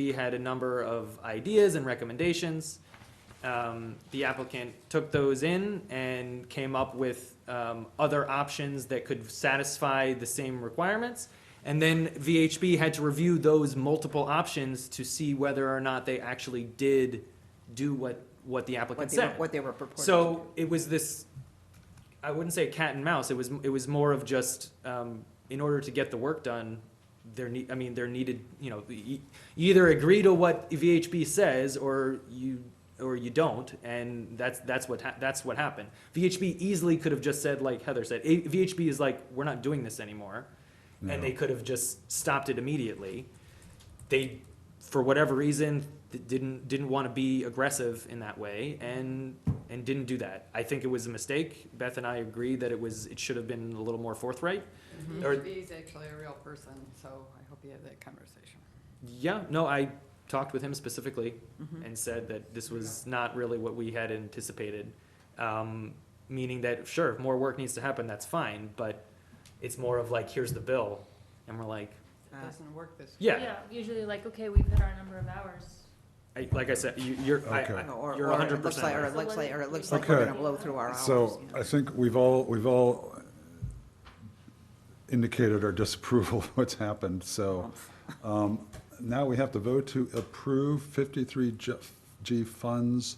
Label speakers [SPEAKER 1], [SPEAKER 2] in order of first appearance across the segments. [SPEAKER 1] We had a number of ideas and recommendations. Um, The applicant took those in and came up with um, other options that could satisfy the same requirements. And then VHB had to review those multiple options to see whether or not they actually did do what, what the
[SPEAKER 2] what
[SPEAKER 1] applicant
[SPEAKER 2] they, were-
[SPEAKER 1] said.
[SPEAKER 2] what they were purporting to
[SPEAKER 1] So
[SPEAKER 2] do.
[SPEAKER 1] it was this, I wouldn't say cat and mouse, it was, it was more of just, um, in order to get the work done, there need, I mean, there needed, you know, you you either agree to what VHB says or you, or you don't, and that's, that's what, hap- that's what happened. VHB easily could have just said, like Heather said, eh, VHB is like, we're not doing this anymore, and they could have just stopped it immediately. They, for whatever reason, th- didn't, didn't want to be aggressive in that way, and and didn't do that. I think it was a mistake. Beth and I agree that it was, it should have been a little more forthright. Or-
[SPEAKER 3] He's actually a real person, so I hope you have that conversation.
[SPEAKER 1] Yeah, no, I talked with him specifically
[SPEAKER 2] Mm-hmm.
[SPEAKER 1] and said that this was not really what we had anticipated. Um, meaning that, sure, if more work needs to happen, that's fine, but it's more of like, here's the bill, and we're like,
[SPEAKER 2] Uh,
[SPEAKER 3] It doesn't work this way.
[SPEAKER 1] yeah.
[SPEAKER 4] usually like, okay, we've hit our number of hours.
[SPEAKER 1] I, like I said, you, you're, I,
[SPEAKER 5] Okay.
[SPEAKER 1] I,
[SPEAKER 2] Or,
[SPEAKER 1] you're
[SPEAKER 2] or it looks
[SPEAKER 1] 100%
[SPEAKER 2] like, or
[SPEAKER 1] right.
[SPEAKER 2] it looks like, or it looks like
[SPEAKER 5] Okay.
[SPEAKER 2] we're gonna blow through our hours.
[SPEAKER 5] So
[SPEAKER 2] you know.
[SPEAKER 5] I think we've all, we've all indicated our disapproval of what's happened, so um, now we have to vote to approve 53G funds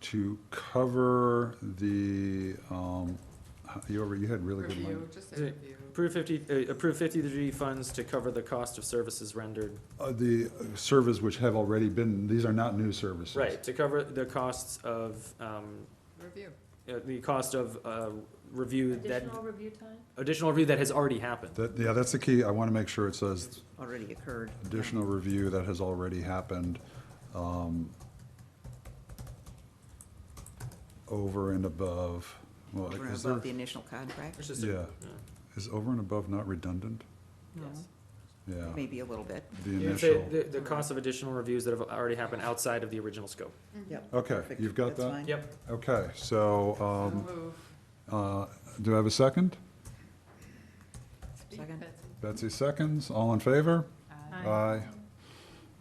[SPEAKER 5] to cover the, um, you already, you had really good money.
[SPEAKER 3] Review, just a
[SPEAKER 1] Is it-
[SPEAKER 3] review.
[SPEAKER 1] Approve fifty, uh, approve fifty-three funds to cover the cost of services rendered
[SPEAKER 5] Uh, The servers which have already been, these are not new services.
[SPEAKER 1] Right, to cover the costs of, um,
[SPEAKER 3] Review.
[SPEAKER 1] uh, the cost of, uh, review that,
[SPEAKER 4] Additional review time?
[SPEAKER 1] additional review that has already happened.
[SPEAKER 5] That, yeah, that's the key. I want to make sure it says
[SPEAKER 2] Already occurred.
[SPEAKER 5] additional review that has already happened um, over and above, well,
[SPEAKER 2] Over and
[SPEAKER 5] is there,
[SPEAKER 2] above the initial contract,
[SPEAKER 1] It's just a-
[SPEAKER 5] Yeah. is over and above not redundant?
[SPEAKER 3] Yes.
[SPEAKER 5] Yeah,
[SPEAKER 2] maybe a little bit.
[SPEAKER 5] the
[SPEAKER 1] You would say
[SPEAKER 5] initial,
[SPEAKER 1] The, the cost of additional reviews that have already happened outside of the original scope.
[SPEAKER 2] Yep.
[SPEAKER 5] okay,
[SPEAKER 2] Perfect.
[SPEAKER 5] you've got
[SPEAKER 2] That's
[SPEAKER 5] that?
[SPEAKER 2] fine.
[SPEAKER 1] Yep,
[SPEAKER 5] Okay, so,
[SPEAKER 3] So
[SPEAKER 5] um,
[SPEAKER 3] move.
[SPEAKER 5] uh, do I have a second?
[SPEAKER 3] Speak,
[SPEAKER 2] Second.
[SPEAKER 3] Betsy.
[SPEAKER 5] Betsy seconds, all in favor?
[SPEAKER 3] Aye.
[SPEAKER 4] Aye.
[SPEAKER 5] Aye.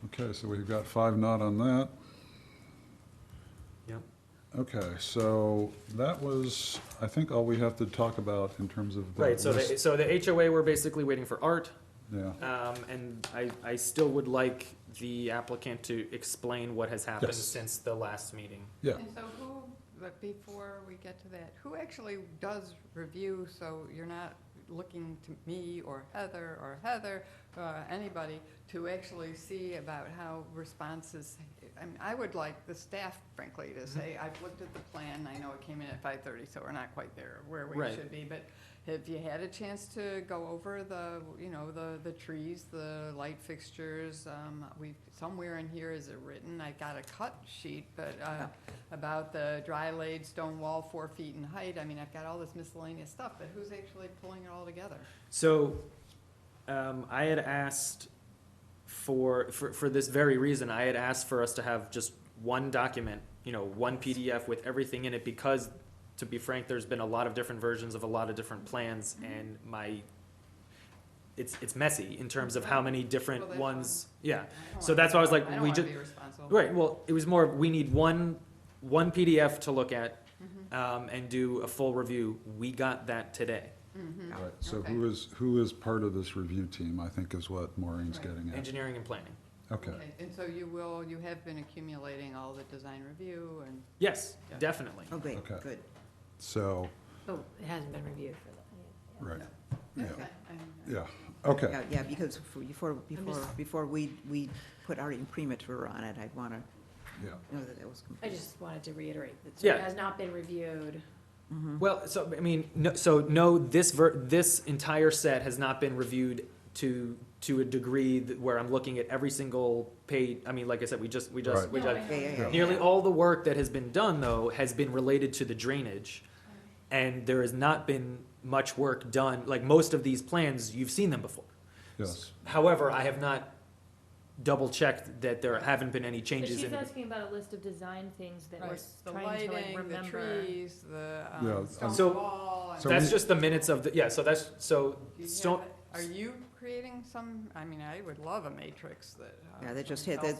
[SPEAKER 5] Okay, so we've got five not on that.
[SPEAKER 1] yep.
[SPEAKER 5] Okay, so that was, I think, all we have to talk about in terms of the
[SPEAKER 1] Right, so
[SPEAKER 5] list.
[SPEAKER 1] the, so the HOA, we're basically waiting for art,
[SPEAKER 5] Yeah,
[SPEAKER 1] um, and I, I still would like the applicant to explain what has happened
[SPEAKER 5] Yes.
[SPEAKER 1] since the last meeting.
[SPEAKER 5] yeah.
[SPEAKER 3] And so who, but before we get to that, who actually does review, so you're not looking to me or Heather or Heather, uh, anybody, to actually see about how responses, I mean, I would like the staff frankly to say, I've looked at the plan, I know it came in at five thirty, so we're not quite there where we
[SPEAKER 1] Right.
[SPEAKER 3] should be, but have you had a chance to go over the, you know, the, the trees, the light fixtures? Um, we've, somewhere in here is it written, I got a cut sheet, but, uh, about the dry laid stone wall, four feet in height. I mean, I've got all this miscellaneous stuff, but who's actually pulling it all together?
[SPEAKER 1] So, um, I had asked for, for, for this very reason, I had asked for us to have just one document, you know, one PDF with everything in it, because, to be frank, there's been a lot of different versions of a lot of different plans,
[SPEAKER 3] Mm-hmm.
[SPEAKER 1] and my, it's, it's messy in terms of how many different
[SPEAKER 3] Well, that's
[SPEAKER 1] ones, yeah.
[SPEAKER 3] I don't
[SPEAKER 1] So
[SPEAKER 3] wanna-
[SPEAKER 1] that's why I was like,
[SPEAKER 3] I don't
[SPEAKER 1] we
[SPEAKER 3] wanna
[SPEAKER 1] ju-
[SPEAKER 3] be responsible.
[SPEAKER 1] Right, well, it was more, of we need one, one PDF to look at,
[SPEAKER 3] Mm-hmm.
[SPEAKER 1] um, and do a full review. We got that today.
[SPEAKER 3] Mhm.
[SPEAKER 5] Right, so
[SPEAKER 3] Okay.
[SPEAKER 5] who is, who is part of this review team, I think is what Maureen's
[SPEAKER 3] Right.
[SPEAKER 5] getting at.
[SPEAKER 1] Engineering and planning.
[SPEAKER 5] Okay,
[SPEAKER 3] Okay, And so you will, you have been accumulating all the design review and
[SPEAKER 1] Yes,
[SPEAKER 3] Yeah.
[SPEAKER 1] definitely.
[SPEAKER 2] Oh, great,
[SPEAKER 5] Okay.
[SPEAKER 2] good.
[SPEAKER 5] so,
[SPEAKER 6] Oh, it hasn't been reviewed for that.
[SPEAKER 5] right, yeah,
[SPEAKER 3] That's fine. I'm-
[SPEAKER 5] yeah, okay,
[SPEAKER 2] Yeah, yeah, because for- before, before,
[SPEAKER 6] just-
[SPEAKER 2] before we, we put our imprimatur on it, I'd wanna
[SPEAKER 5] yeah.
[SPEAKER 2] know that it was complete.
[SPEAKER 6] I just wanted to reiterate that so
[SPEAKER 1] Yeah.
[SPEAKER 6] it has not been reviewed.
[SPEAKER 1] Well, so, I mean, no, so no, this ver, this entire set has not been reviewed to, to a degree that- where I'm looking at every single page. I mean, like I said, we just, we just,
[SPEAKER 5] Right.
[SPEAKER 1] we
[SPEAKER 4] No,
[SPEAKER 1] just,
[SPEAKER 4] I-
[SPEAKER 2] Yeah, yeah, yeah.
[SPEAKER 1] nearly all the work that has been done though has been related to the drainage. And there has not been much work done, like most of these plans, you've seen them before.
[SPEAKER 5] Yes,
[SPEAKER 1] However, I have not double checked that there haven't been any
[SPEAKER 4] But
[SPEAKER 1] changes
[SPEAKER 4] she's
[SPEAKER 1] in.
[SPEAKER 4] asking about a list of design things that we're
[SPEAKER 3] Right.
[SPEAKER 4] s-
[SPEAKER 3] The
[SPEAKER 4] trying to like
[SPEAKER 3] lighting, the
[SPEAKER 4] remember.
[SPEAKER 3] trees, the um,
[SPEAKER 5] Yeah, um,
[SPEAKER 3] stone
[SPEAKER 1] So-
[SPEAKER 3] wall. and-
[SPEAKER 5] So
[SPEAKER 1] That's
[SPEAKER 5] we-
[SPEAKER 1] just the minutes of the, yeah, so that's, so,
[SPEAKER 3] Do you have
[SPEAKER 1] stone,
[SPEAKER 3] it? Are you cre-
[SPEAKER 2] creating some, I mean, I would love a matrix that. uh,
[SPEAKER 3] Yeah, that just
[SPEAKER 2] someone
[SPEAKER 3] hit- that- uh,
[SPEAKER 2] tells